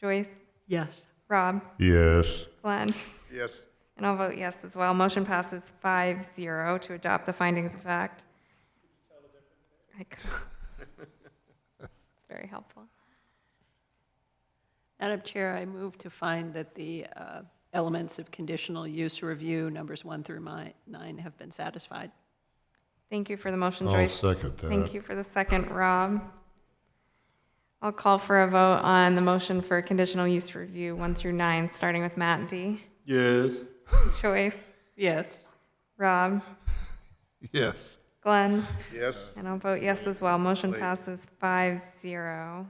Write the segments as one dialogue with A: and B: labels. A: Joyce,
B: Yes.
A: Rob,
C: Yes.
A: Glenn.
D: Yes.
A: And I'll vote yes as well. Motion passes 5-0 to adopt the findings of fact. I could- It's very helpful.
B: Madam Chair, I move to find that the uh, elements of conditional use review, numbers one through mi- nine, have been satisfied.
A: Thank you for the motion,
C: I'll
A: Joyce.
C: second
A: Thank
C: that.
A: you for the second, Rob. I'll call for a vote on the motion for conditional use review 1 through 9, starting with Matt D.
D: Yes.
A: Joyce,
B: Yes.
A: Rob,
C: Yes.
A: Glenn.
D: Yes.
A: And I'll vote yes as well. Motion passes 5-0.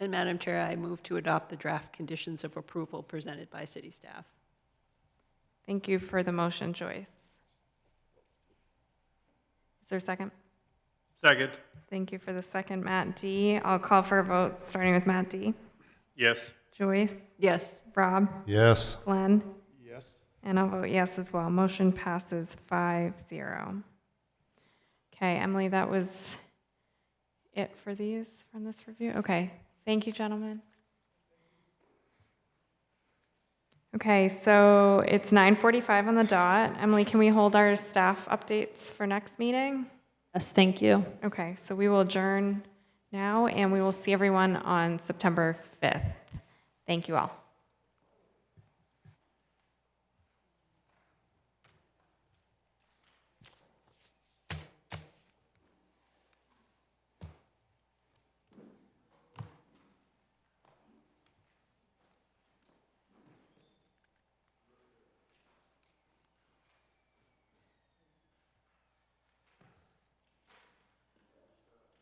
B: And Madam Chair, I move to adopt the draft conditions of approval presented by city staff.
A: Thank you for the motion, Joyce. Is there a second?
D: Second.
A: Thank you for the second, Matt D. I'll call for a vote, starting with Matt D.
D: Yes.
A: Joyce,
B: Yes.
A: Rob,
C: Yes.
A: Glenn,
D: Yes.
A: and I'll vote yes as well. Motion passes 5-0. Okay, Emily, that was it for these from this review? Okay, thank you, gentlemen. Okay, so it's 9:45 on the dot. Emily, can we hold our staff updates for next meeting?
E: Yes, thank you.
A: Okay, so we will adjourn now, and we will see everyone on September 5th. Thank you all.